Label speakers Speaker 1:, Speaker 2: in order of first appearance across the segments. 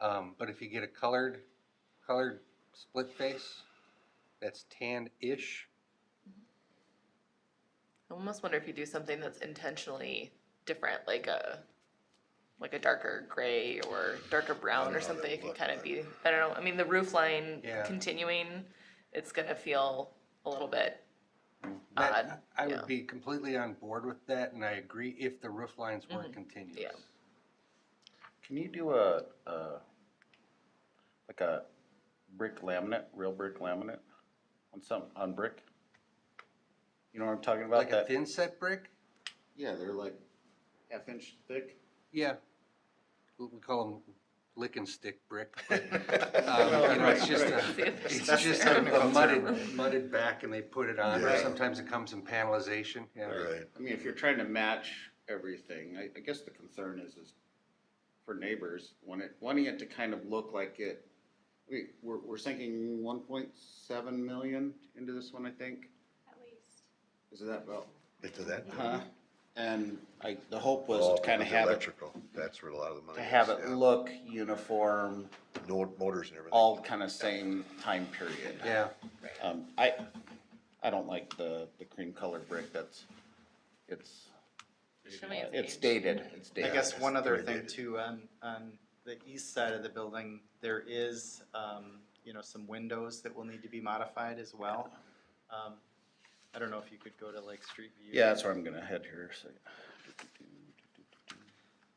Speaker 1: Um, but if you get a colored, colored split face, that's tan-ish,
Speaker 2: I almost wonder if you do something that's intentionally different, like a, like a darker gray or darker brown or
Speaker 3: know,
Speaker 2: something, it
Speaker 3: that
Speaker 2: can
Speaker 3: would
Speaker 2: kind of
Speaker 3: look
Speaker 2: be, I don't know, I mean, the roof line
Speaker 1: Yeah.
Speaker 2: continuing, it's gonna feel a little bit,
Speaker 1: That-
Speaker 2: Odd,
Speaker 1: I
Speaker 2: yeah.
Speaker 1: would be completely on board with that, and I agree if the roof lines were
Speaker 2: Mhm,
Speaker 1: continuous.
Speaker 2: yeah.
Speaker 3: Can you do a, uh, like a brick laminate, real brick laminate on some, on brick? You know what I'm talking about?
Speaker 1: Like a
Speaker 3: That-
Speaker 1: thin set brick?
Speaker 3: Yeah, they're like half inch thick.
Speaker 1: Yeah. We we call them lick and stick brick. but, um,
Speaker 3: Well,
Speaker 1: you know, It's
Speaker 3: right,
Speaker 1: just
Speaker 3: right.
Speaker 1: a,
Speaker 2: See if there's
Speaker 1: it's
Speaker 2: something
Speaker 1: just a- a
Speaker 3: Technical
Speaker 1: mudded,
Speaker 3: term.
Speaker 1: mudded back and they put it on, or
Speaker 4: Right.
Speaker 1: sometimes it comes in panelization, yeah.
Speaker 4: Right.
Speaker 3: I mean, if you're trying to match everything, I, I guess the concern is, is for neighbors, want it, wanting it to kind of look like it. We, we're, we're sinking one point seven million into this one, I think.
Speaker 5: at least.
Speaker 3: Is that about?
Speaker 4: Into that.
Speaker 3: Uh-huh. And I, the hope
Speaker 4: All
Speaker 3: was to kind of
Speaker 4: under
Speaker 3: have it,
Speaker 4: Electrical, that's where a lot of the money
Speaker 3: to
Speaker 4: is.
Speaker 3: have it
Speaker 4: yeah.
Speaker 3: look uniform,
Speaker 4: No motors and everything.
Speaker 3: all kind of same time period.
Speaker 1: Yeah,
Speaker 3: Um, I, I don't like the, the cream colored brick, that's, it's,
Speaker 2: show me its
Speaker 3: it's
Speaker 2: age.
Speaker 3: dated, it's
Speaker 6: I
Speaker 3: dated.
Speaker 6: guess one other
Speaker 4: Very
Speaker 6: thing
Speaker 4: dated.
Speaker 6: too, on, on the east side of the building, there is, um, you know, some windows that will need to be modified as well. Um, I don't know if you could go to like street view.
Speaker 3: Yeah, that's where I'm gonna head here, so.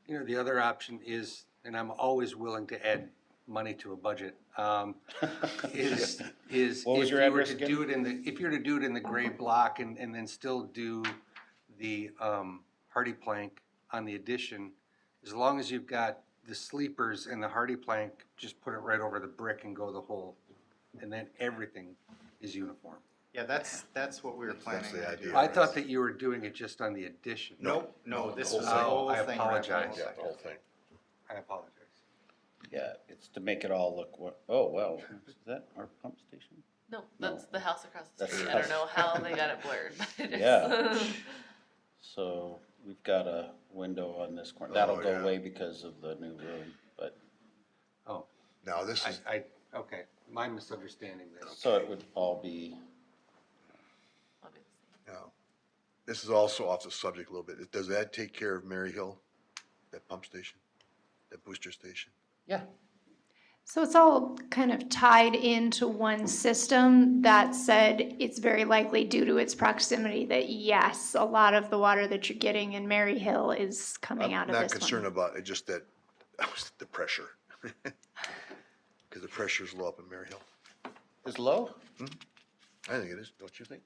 Speaker 1: you know, the other option is, and I'm always willing to add money to a budget, um, is, is.
Speaker 3: What was
Speaker 1: if
Speaker 3: your
Speaker 1: you were
Speaker 3: address
Speaker 1: to
Speaker 3: again?
Speaker 1: Do it in the, if you were to do it in the gray block and, and then still do the, um, hardy plank on the addition, as long as you've got the sleepers and the hardy plank, just put it right over the brick and go the whole, and then everything is uniform.
Speaker 6: Yeah, that's, that's what we were
Speaker 4: That's- that's
Speaker 6: planning
Speaker 4: the
Speaker 6: to do.
Speaker 4: idea.
Speaker 1: I thought that you were doing it just on the addition.
Speaker 6: Nope, no,
Speaker 4: No,
Speaker 6: this
Speaker 4: the
Speaker 6: was the
Speaker 4: whole thing.
Speaker 6: whole
Speaker 1: Oh, I
Speaker 6: thing. wrapped up.
Speaker 1: apologize.
Speaker 4: Yeah, the whole thing.
Speaker 1: I apologize.
Speaker 3: Yeah, it's to make it all look, what, oh, wow, is that our pump station?
Speaker 2: No, that's the house across the
Speaker 3: That's
Speaker 2: street,
Speaker 3: the
Speaker 2: I don't
Speaker 3: house.
Speaker 2: know how they got it blurred, but it is.
Speaker 3: Yeah. So we've got a window on this corner, that'll
Speaker 4: Oh,
Speaker 3: go
Speaker 4: yeah.
Speaker 3: away because of the new room, but,
Speaker 1: Oh,
Speaker 4: Now, this is,
Speaker 1: I, I, okay, my misunderstanding there.
Speaker 3: so it would all be,
Speaker 2: Obviously.
Speaker 4: now, this is also off the subject a little bit. Does that take care of Mary Hill? That pump station? That booster station?
Speaker 3: yeah,
Speaker 5: So it's all kind of tied into one system. That said, it's very likely due to its proximity that yes, a lot of the water that you're getting in Mary Hill is coming out
Speaker 4: I'm
Speaker 5: of this
Speaker 4: not
Speaker 5: one.
Speaker 4: concerned about it, just that, the pressure. Because the pressure's low up in Mary Hill.
Speaker 3: is low?
Speaker 4: I think it is, don't you think?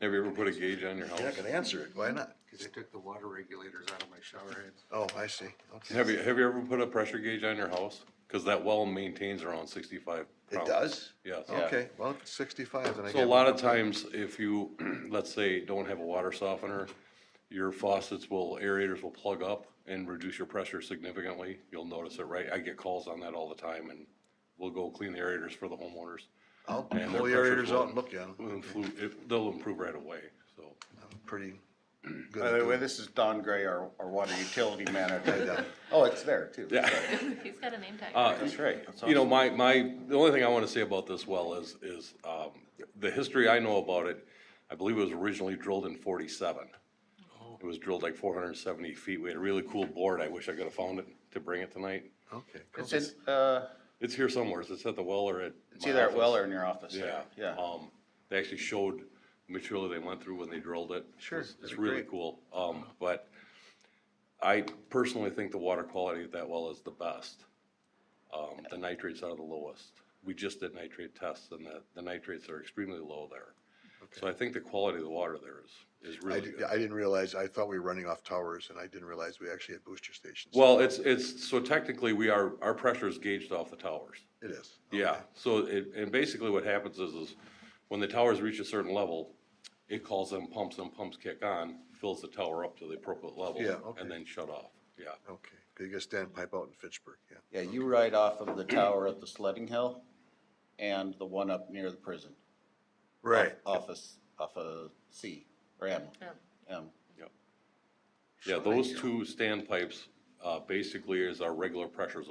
Speaker 7: Have you ever put a gauge on your house?
Speaker 4: You're not gonna answer it, why not?
Speaker 1: Cause I took the water regulators out of my shower heads.
Speaker 4: Oh, I see, okay.
Speaker 7: Have you, have you ever put a pressure gauge on your house? Cause that well maintains around sixty-five
Speaker 4: It
Speaker 7: pounds.
Speaker 4: does?
Speaker 7: Yes.
Speaker 4: Okay, well, if it's sixty-five, then I
Speaker 7: So a
Speaker 4: get
Speaker 7: lot
Speaker 4: one.
Speaker 7: of times, if you, let's say, don't have a water softener, your faucets will, aerators will plug up and reduce your pressure significantly. You'll notice it, right? I get calls on that all the time and we'll go clean the aerators for the homeowners.
Speaker 4: I'll pull the
Speaker 7: and their pressure's
Speaker 4: aerators out
Speaker 7: low.
Speaker 4: and look at
Speaker 7: Will
Speaker 4: them,
Speaker 7: improve- it- They'll improve right away, so.
Speaker 4: I'm pretty good
Speaker 3: By
Speaker 4: at
Speaker 3: the way,
Speaker 4: doing
Speaker 3: this is Don Gray, our, our water utility
Speaker 4: Yeah.
Speaker 3: manager. Oh, it's there too.
Speaker 7: Yeah.
Speaker 2: He's got a name tag.
Speaker 7: Uh,
Speaker 3: That's right. That's
Speaker 7: You know,
Speaker 3: awesome.
Speaker 7: my, my, the only thing I want to say about this well is, is um, the history I know about it, I believe it was originally drilled in forty-seven. It was drilled like four hundred and seventy feet. We had a really cool board. I wish I could have found it to bring it tonight.
Speaker 4: Okay, cool.
Speaker 3: It's in, uh,
Speaker 7: It's here somewhere. It's at the well or at.
Speaker 3: it's
Speaker 7: my
Speaker 3: either at
Speaker 7: office.
Speaker 3: Well or in your office.
Speaker 7: Yeah.
Speaker 3: Yeah.
Speaker 7: Um, they actually showed the material they went through when they drilled it.
Speaker 4: Sure,
Speaker 7: It's- It's
Speaker 4: that'd be
Speaker 7: really
Speaker 4: great.
Speaker 7: cool. Um, but I personally think the water quality at that well is the best. Um, the nitrates are the lowest. We just did nitrate tests and the, the nitrates are extremely low there. So I think the quality of the water there is, is
Speaker 4: I
Speaker 7: really
Speaker 4: did-
Speaker 7: good.
Speaker 4: I didn't realize, I thought we were running off towers, and I didn't realize we actually had booster stations.
Speaker 7: Well, it's, it's, so technically we are, our pressure is gauged off the towers.
Speaker 4: It is.
Speaker 7: Yeah, so it, and basically what happens is, is when the towers reach a certain level, it calls them pumps, and pumps kick on, fills the tower up to the appropriate level.
Speaker 4: Yeah, okay.
Speaker 7: And then shut off, yeah.
Speaker 4: Okay, biggest standpipe out in Fitchburg, yeah.
Speaker 3: Yeah, you ride off of the tower at the sledding hill and the one up near the prison.
Speaker 4: Right.
Speaker 3: Office, off of C, or M,
Speaker 2: Yeah.
Speaker 3: M.
Speaker 7: Yeah, those two standpipes, uh, basically is our regular pressure